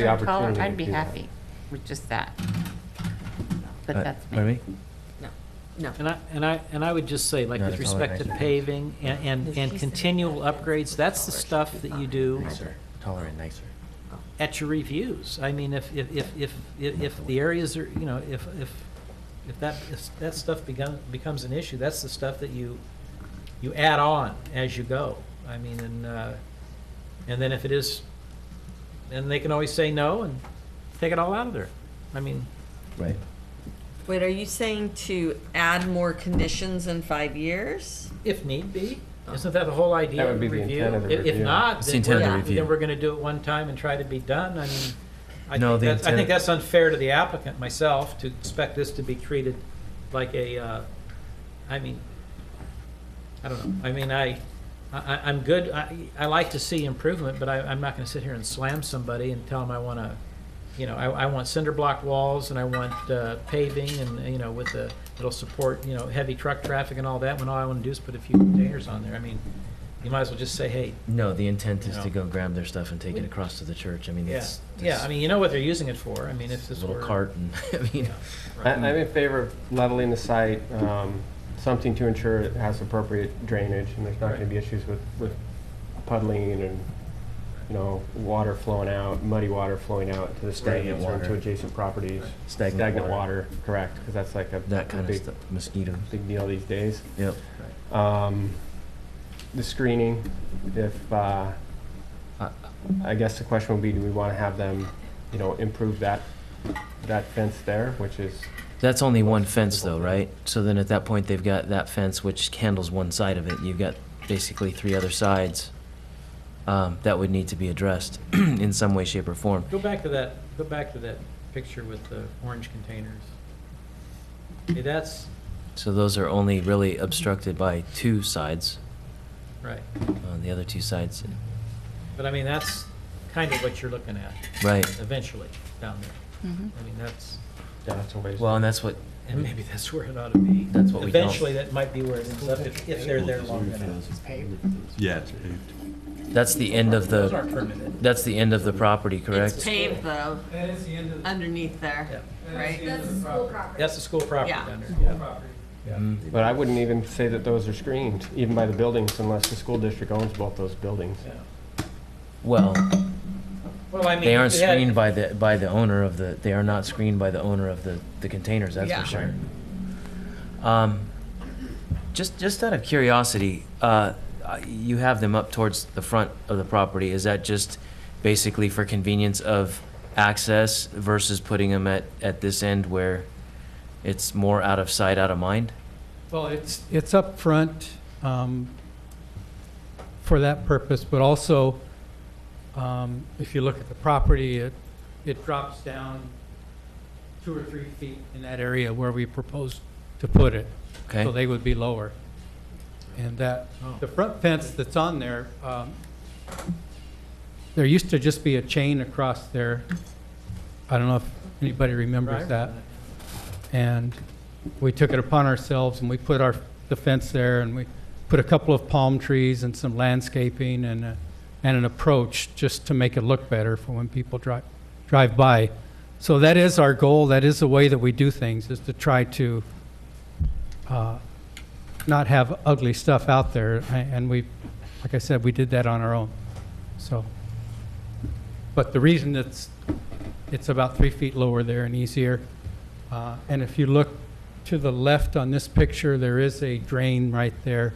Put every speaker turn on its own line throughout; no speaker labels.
the opportunity to
I'd be
do that.
happy with just that. But
Uh,
that's
pardon
me. No, no.
And I, and I, and I would just say, like,
No,
with
that's all
respect to
right.
paving and, and- and continual upgrades, that's the stuff that you do
Nicer, taller and nicer.
at your reviews. I mean, if, if, if, if, if if the areas are, you know, if, if, if that, if that stuff begun, becomes an issue, that's the stuff that you, you add on as you go. I mean, and, uh, and then if it is, and they can always say no and take it all out of there. I mean,
Right.
Wait, are you saying to add more conditions in five years?
if need be. Isn't that the whole idea?
That would be the
review?
intent of the
If- If
review.
not,
It's
then
the intent
we're,
of the
then
review.
we're gonna do it one time and try to be done. I mean, I
No,
think
the
that's, I think
intent-
that's unfair to the applicant, myself, to expect this to be treated like a, uh, I mean, I don't know. I mean, I, I, I- I'm good. I, I like to see improvement, but I, I'm not gonna sit here and slam somebody and tell them I wanna, you know, I, I want cinder block walls and I want uh, paving and, you know, with the, it'll support, you know, heavy truck traffic and all that, when all I wanna do is put a few containers on there. I mean, you might as well just say, hey,
No, the intent is
No.
to go grab their stuff and take it across to the church. I mean,
yeah,
it's.
yeah, I mean, you know what they're using it for. I mean, if
it's
this
a
were.
Little cart and, I mean,
I- I'm in favor of leveling the site, um, something to ensure it has appropriate drainage, and there's not gonna be issues with, with puddling and, you know, water flowing out, muddy water flowing out to the
Stagnant
stadiums or to
water.
adjacent properties.
Stagnant water.
water, correct, because that's like a
that
a
kind of
big,
stuff, mosquitoes.
big deal these days.
Yep.
Um, The screening, if, uh,
I-
I guess the question would be, do we wanna have them, you know, improve that, that fence there, which is
That's only one fence though, right? So then at that point, they've got that fence which handles one side of it. You've got basically three other sides um, that would need to be addressed in some way, shape or form.
Go back to that, go back to that picture with the orange containers. Hey, that's,
So those are only really obstructed by two sides.
right.
On the other two sides,
But I mean, that's kind of what you're looking at
right?
eventually down there. I mean, that's,
Yeah, that's a ways.
Well, and that's what
and maybe that's where it ought to be.
Mm-hmm. That's what we don't-
Eventually, that might be where it ends up if, if they're there long enough.
Yeah, it's paved.
That's the end of the, that's the end of the property,
It's
correct?
paved though,
That is the end of,
underneath there, right?
That's the school property.
That's the school property
Yeah.
down there. yeah.
But I wouldn't even say that those are screened, even by the buildings, unless the school district owns both those buildings.
Well,
Well, I mean.
they aren't
if had-
screened by the, by the owner of the, they are not screened by the owner of the, the containers, that's
Yeah.
for sure. Um, just, just out of curiosity, uh, uh, you have them up towards the front of the property. Is that just basically for convenience of access versus putting them at, at this end where it's more out of sight, out of mind?
well, it's, it's up front um, for that purpose, but also, um, if you look at the property, it, it drops down two or three feet in that area where we proposed to put it. So
Okay,
they would be lower. And that,
Oh.
the front fence that's on there, um, there used to just be a chain across there. I don't know if anybody remembers that. And we took it upon ourselves and we put our, the fence there and we put a couple of palm trees and some landscaping and, a- and an approach just to make it look better for when people drive, drive by. So that is our goal, that is the way that we do things, is to try to uh, not have ugly stuff out there. A- And we, like I said, we did that on our own, so. But the reason it's, it's about three feet lower there and easier. uh, And if you look to the left on this picture, there is a drain right there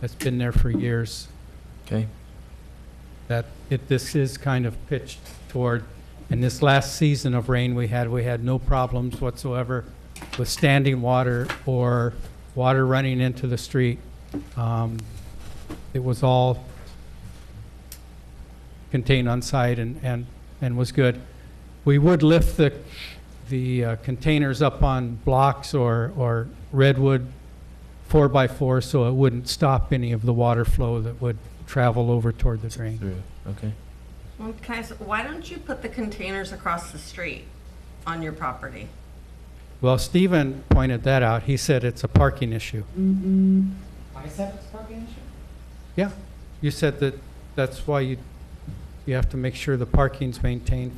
that's been there for years,
okay.
that it, this is kind of pitched toward. And this last season of rain we had, we had no problems whatsoever with standing water or water running into the street. Um, It was all contained on site and, and, and was good. We would lift the, the uh, containers up on blocks or, or redwood four-by-four so it wouldn't stop any of the water flow that would travel over toward the drain.
Through, okay.
Well, Can I, s- why don't you put the containers across the street on your property?
Well, Stephen pointed that out. He said it's a parking issue.
I said it's parking issue?
Yeah, you said that, that's why you, you have to make sure the parking's maintained